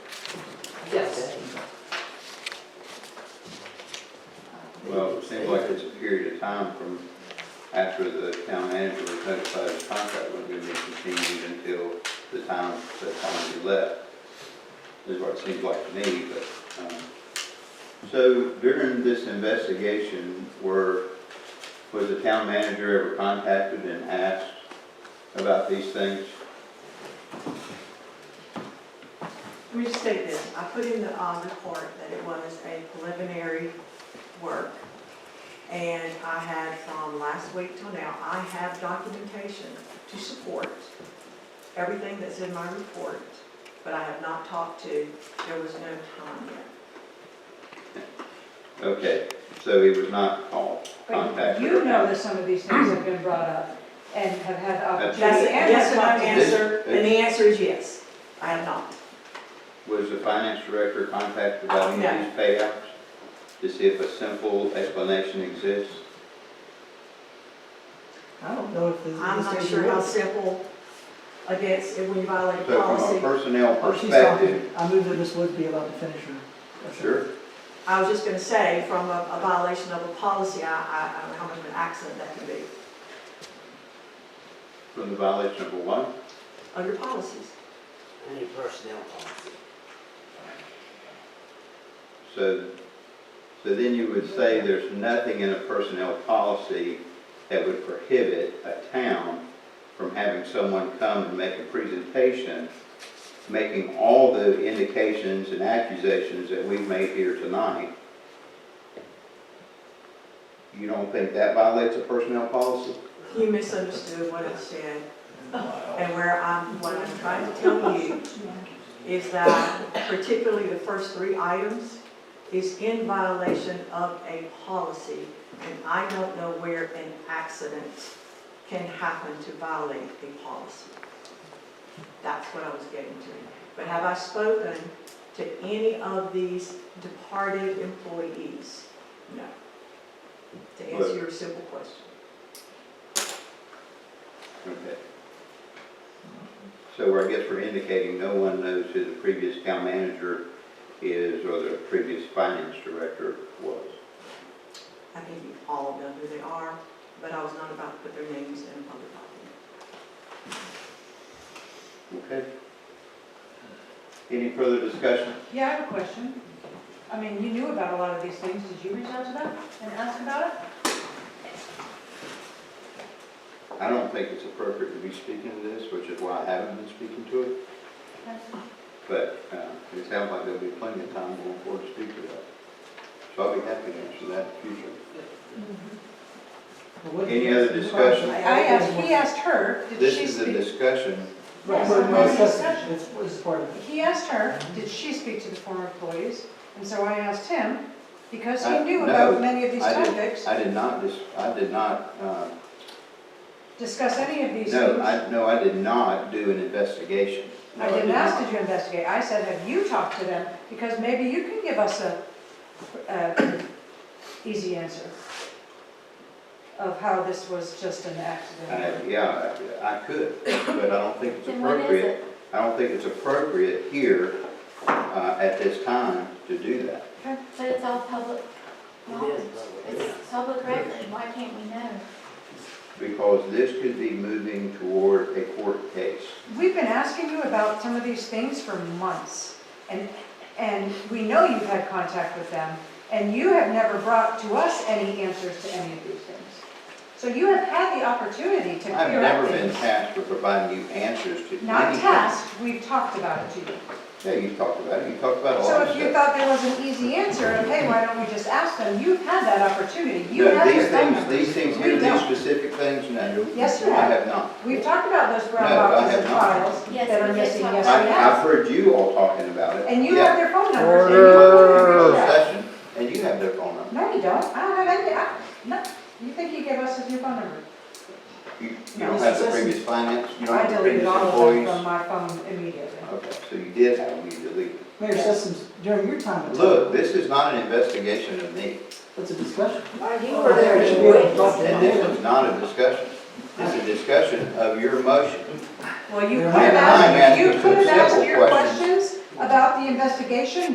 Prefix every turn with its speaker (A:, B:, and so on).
A: time from after the town manager was notified of the contract was gonna be continued until the time, the time he left. Is what it seems like to me, but, um, so during this investigation, were, was the town manager ever contacted and asked about these things?
B: Let me just say this, I put in the uh, report that it was a preliminary work, and I had from last week till now, I have documentation to support everything that's in my report, but I have not talked to, there was no time yet.
A: Okay, so he was not called,
C: But
A: contacted?
C: you know that some of these things have been brought up and have had the
B: That's,
C: opportunity. and
B: that's
C: have
B: my
C: not been-
B: answer, and the answer is yes, I have not.
A: Was the finance director contacted about any of these payouts? To see if a simple explanation exists?
D: I don't know if this is.
B: I'm not sure how simple against, when you violate a
A: So from a
B: policy.
A: personnel
D: Oh, she's talking.
A: perspective,
D: I move that Ms. Woods be allowed to finish her.
A: sure,
B: I was just gonna say, from a a violation of a policy, I, I I don't know how much of an accident that can be,
A: from the violation of a what?
B: under policies.
E: Any personnel policy.
A: So, so then you would say there's nothing in a personnel policy that would prohibit a town from having someone come and make a presentation, making all the indications and accusations that we've made here tonight. You don't think that violates a personnel policy?
B: You misunderstood what I said. And where I'm, what I'm trying to tell you is that particularly the first three items is in violation of a policy, and I don't know where an accident can happen to violate a policy. That's what I was getting to. But have I spoken to any of these departed employees? No. To answer your simple question.
A: Okay. So I guess we're indicating no one knows who the previous town manager is or the previous finance director was.
B: I think you all know who they are, but I was not about to put their names in a public
A: Okay.
B: document.
A: Any further discussion?
C: Yeah, I have a question. I mean, you knew about a lot of these things. Did you reach out to them and ask about it?
A: I don't think it's appropriate to be speaking to this, which is why I haven't been speaking to it, but uh, it sounds like there'll be plenty of time going forward to speak to that. So I'll be happy to answer that in the future.
D: Well, what-
A: Any other discussion?
C: I asked, he asked her, did
A: This
C: she
A: is a
C: speak?
A: discussion.
D: Right, so no discussion, it's, it's part of it.
C: He asked her, did she speak to the former employees? And so I asked him, because he
A: I-
C: knew
A: Uh, no,
C: about many of these
A: I did-
C: topics,
A: I did not, dis- I did not uh,
C: discuss any of these
A: No,
C: things.
A: I, no, I did not do an investigation. No,
C: I didn't ask,
A: not.
C: did you investigate? I said, have you talked to them? Because maybe you can give us a, a easy answer of how this was just an accident.
A: I- Yeah, I I could, but I don't think it's
F: Then what is
A: appropriate.
F: it?
A: I don't think it's appropriate here uh, at this time to do that.
F: But it's all public
E: It
F: knowledge.
E: is public, yeah.
F: It's public record, why can't we know?
A: Because this could be moving toward a court case.
C: We've been asking you about some of these things for months, and, and we know you've had contact with them, and you have never brought to us any answers to any of these things. So you have had the opportunity to
A: I've
C: clear up
A: never been
C: things.
A: tasked with providing you answers to anything.
C: Not tasked, we've talked about it to you.
A: Yeah, you talked about it, you talked about a lot
C: So
A: of
C: if you
A: stuff.
C: thought there was an easy answer of, hey, why don't we just ask them, you've had that opportunity, you
A: No,
C: have your
A: these
C: phone
A: things,
C: numbers.
A: these things
C: We
A: here, these
C: don't.
A: specific things, no.
C: Yes, you
A: I
C: have.
A: have not.
C: We've talked about those brown
A: No, I
C: boxes
A: have
C: and
A: not.
C: files
F: Yes,
C: that are
F: we did
C: missing,
F: talk
C: yes,
A: I-
C: we
A: I've
C: have.
A: heard you all talking about it.
C: And you
A: Yeah.
C: have their phone numbers, and you have their
A: closed
C: address.
A: session, and you have their phone number.
C: No, you don't, I don't have any, I, no, you think he gave us his new phone number?
A: You you
C: No,
A: don't
C: this
A: have
C: is
A: the
C: just-
A: previous finance, you don't
C: I
A: have the
C: deleted
A: previous
C: all of them
A: employees.
C: from my phone immediately.
A: Okay, so you did have them, you deleted. them.
D: Mayor Sessoms, during your time. it's-
A: Look, this is not an investigation of me,
D: It's a discussion.
E: You
D: were there, you should be able to talk to
A: and this is not a discussion. It's a discussion of your motion.
C: Well, you
D: Yeah.
C: could have
A: I'm
C: asked, you
A: asking
C: could have
A: some
C: asked
A: simple
C: your
A: questions.
C: questions about the investigation,